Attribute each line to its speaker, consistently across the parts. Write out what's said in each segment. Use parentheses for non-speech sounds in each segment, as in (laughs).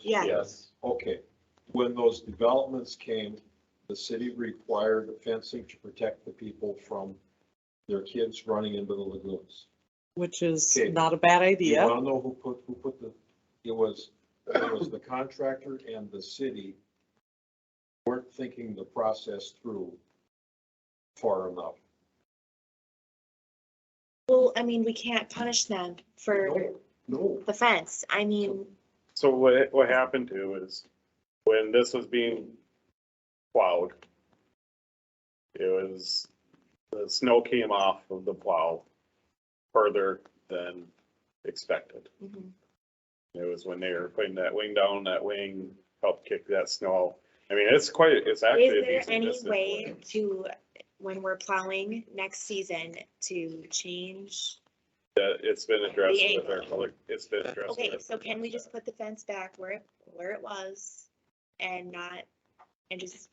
Speaker 1: Yes.
Speaker 2: Yes.
Speaker 3: Okay, when those developments came, the city required fencing to protect the people from their kids running into the lagoons.
Speaker 4: which is
Speaker 3: Okay.
Speaker 4: not a bad
Speaker 3: You
Speaker 4: idea.
Speaker 3: wanna know who put, who put the, it was, it was the contractor and the city weren't thinking the process through far enough.
Speaker 1: Well, I mean, we can't punish them for
Speaker 3: No, No,
Speaker 1: the fence. I mean,
Speaker 2: So what, what happened to is, when this was being plowed, it was, the snow came off of the plow further than expected.
Speaker 1: mhm.
Speaker 2: It was when they were putting that wing down, that wing helped kick that snow. I mean, it's quite, it's actually.
Speaker 1: is
Speaker 2: a
Speaker 1: there
Speaker 2: decent
Speaker 1: any
Speaker 2: distance
Speaker 1: way
Speaker 2: away.
Speaker 1: to, when we're plowing next season, to change?
Speaker 2: That it's been addressed
Speaker 1: The
Speaker 2: with our public, it's been addressed.
Speaker 1: Okay,
Speaker 2: with-
Speaker 1: so can we just put the fence back where, it where it was and not, and just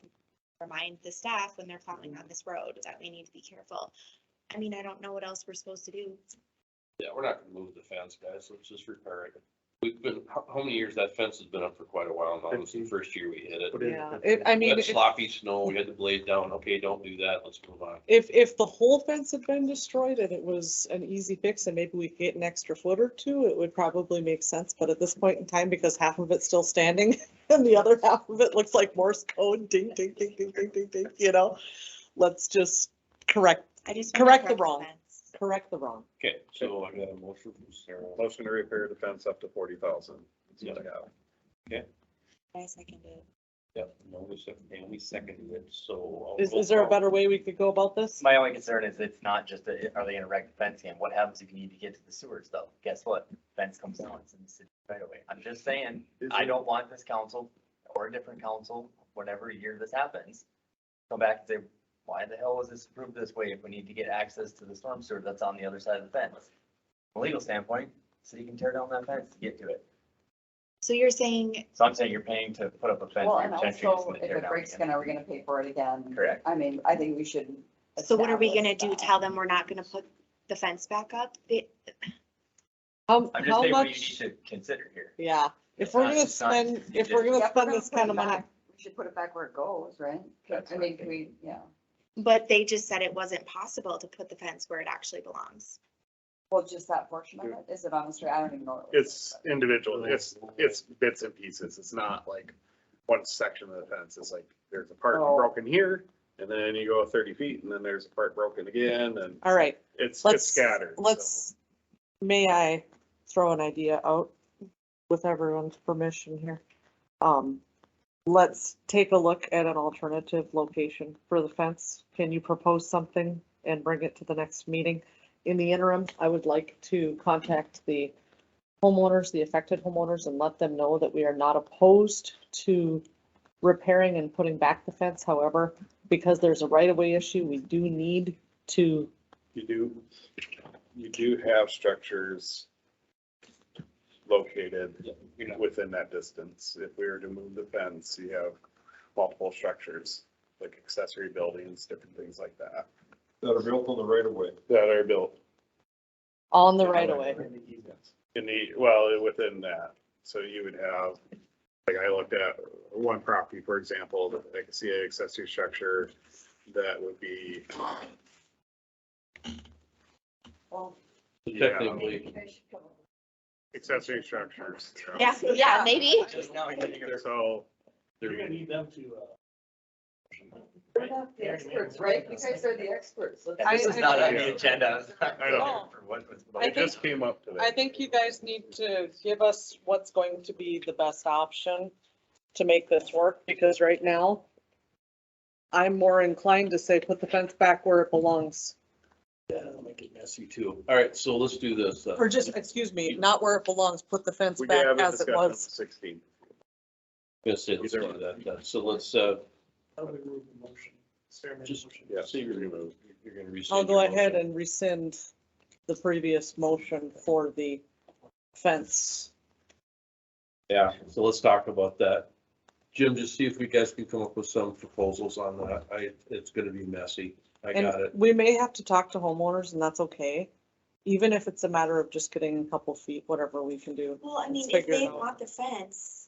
Speaker 1: remind the staff when they're plowing on this road that we need to be careful? I mean, I don't know what else we're supposed to do.
Speaker 5: Yeah, we're not gonna move the fence, guys, let's just repair it. We've been, how, how many years that fence has been up for quite a while now, this is the first year we hit it.
Speaker 4: Yeah, it, I
Speaker 5: We
Speaker 4: mean,
Speaker 5: had
Speaker 4: if,
Speaker 5: sloppy snow, we had the blade down, okay, don't do that, let's move on.
Speaker 4: if- if the whole fence had been destroyed and it was an easy fix and maybe we could get an extra foot or two, it would probably make sense. But at this point in time, because half of it's still standing (laughs) and the other half of it looks like Morse code, ding, ding, ding, ding, ding, ding, ding, you know? Let's just correct,
Speaker 1: I just. wanna
Speaker 4: Correct the wrong.
Speaker 1: fence.
Speaker 4: correct the wrong.
Speaker 5: Okay, so I got a motion from Sarah.
Speaker 2: Motion to repair the fence up to forty thousand.
Speaker 1: I second it.
Speaker 5: Yep, no, we second, and we seconded it, so. I'll
Speaker 4: Is,
Speaker 5: roll
Speaker 4: is there a
Speaker 5: call.
Speaker 4: better way we could go about this?
Speaker 6: My only concern is it's not just, a- are they gonna wreck the fence again? What happens if you need to get to the sewers though? Guess what? Fence comes down, it's in the city right away. I'm just saying, I don't want this council or a different council, whatever year this happens, come back and say, why the hell was this approved this way if we need to get access to the storm sewer that's on the other side of the fence? From a legal standpoint, city can tear down that fence to get to it.
Speaker 1: So you're saying,
Speaker 6: So I'm saying you're paying to put up a fence.
Speaker 7: Well,
Speaker 6: you're
Speaker 7: and
Speaker 6: potentially just
Speaker 7: also,
Speaker 6: gonna
Speaker 7: if
Speaker 6: tear
Speaker 7: it
Speaker 6: down
Speaker 7: breaks,
Speaker 6: again.
Speaker 7: gonna, we're gonna pay for it again.
Speaker 6: Correct.
Speaker 7: I mean, I think we should.
Speaker 1: so what are we gonna
Speaker 7: establish
Speaker 1: do?
Speaker 7: that.
Speaker 1: Tell them we're not gonna put the fence back up? They-
Speaker 4: How,
Speaker 6: I'm just
Speaker 4: how
Speaker 6: saying what you need
Speaker 4: much?
Speaker 6: to consider here.
Speaker 4: Yeah, if
Speaker 6: It's
Speaker 4: we're
Speaker 6: not-
Speaker 4: gonna
Speaker 6: it's not
Speaker 4: spend, if
Speaker 6: easy.
Speaker 4: we're
Speaker 7: Yeah,
Speaker 4: gonna
Speaker 7: if we're
Speaker 4: spend this
Speaker 7: put it
Speaker 4: kind of money,
Speaker 7: back, We should put it back where it goes, right?
Speaker 6: That's
Speaker 7: I
Speaker 6: what I
Speaker 7: mean, can we, yeah,
Speaker 1: But they just said it wasn't possible to put the fence where it actually belongs.
Speaker 7: well, just that portion of it, is it on the street? I don't even know. what it was.
Speaker 2: It's individual, it's, it's bits and pieces, it's not like one section of the fence, it's like, there's a part
Speaker 7: Oh.
Speaker 2: broken here, and then you go thirty feet, and then there's a part broken again, and
Speaker 4: all right.
Speaker 2: it's, it's
Speaker 4: let's,
Speaker 2: scattered. so.
Speaker 4: let's, may I throw an idea out with everyone's permission here? Um, let's take a look at an alternative location for the fence. Can you propose something and bring it to the next meeting? In the interim, I would like to contact the homeowners, the affected homeowners, and let them know that we are not opposed to repairing and putting back the fence. However, because there's a right-of-way issue, we do need to
Speaker 2: You do, you do have structures located
Speaker 5: Yeah, You're not,
Speaker 2: within that distance. If we were to move the fence, you have multiple structures, like accessory buildings, different things like that,
Speaker 3: that are built on the right of way.
Speaker 2: that are built
Speaker 4: on the
Speaker 2: Yeah,
Speaker 4: right of way.
Speaker 2: In the, well, within that, so you would have, like I looked at one property, for example, that I could see an accessory structure that would be,
Speaker 7: Well,
Speaker 5: technically,
Speaker 7: maybe they should come up with
Speaker 2: accessory structures.
Speaker 1: Yeah, yeah, maybe.
Speaker 6: Just now, you're gonna go-
Speaker 2: So,
Speaker 5: they're gonna
Speaker 8: need them to, uh,
Speaker 7: We're not the experts, right? You guys are the experts. Let's-
Speaker 6: And this is not on the agenda. (laughs)
Speaker 2: I know.
Speaker 6: For what was-
Speaker 4: I
Speaker 2: it just came up today.
Speaker 4: I think you guys need to give us what's going to be the best option to make this work, because right now, I'm more inclined to say put the fence back where it belongs,
Speaker 5: yeah, it'll make it messy too. All right, so let's do this. uh,
Speaker 4: or just, excuse me, not where it belongs, put the fence
Speaker 2: We
Speaker 4: back
Speaker 2: have a
Speaker 4: as it
Speaker 2: discussion on the
Speaker 4: was.
Speaker 2: 16th.
Speaker 5: Gonna say, let's do that, then. so let's, uh,
Speaker 8: how do we remove the motion? Sarah made a
Speaker 5: Just-
Speaker 8: motion.
Speaker 2: Yeah.
Speaker 5: see, you're gonna, you're gonna rescind.
Speaker 4: I'll go
Speaker 5: your
Speaker 4: ahead
Speaker 5: motion.
Speaker 4: and rescind the previous motion for the fence.
Speaker 5: Yeah, so let's talk about that. Jim, just see if we guys can come up with some proposals on that. I, it's gonna be messy. I got
Speaker 4: And
Speaker 5: it.
Speaker 4: we may have to talk to homeowners, and that's okay, even if it's a matter of just getting a couple feet, whatever we can do.
Speaker 1: Well, I mean,
Speaker 4: Let's
Speaker 1: if
Speaker 4: figure it
Speaker 1: they
Speaker 4: out.
Speaker 1: want the fence,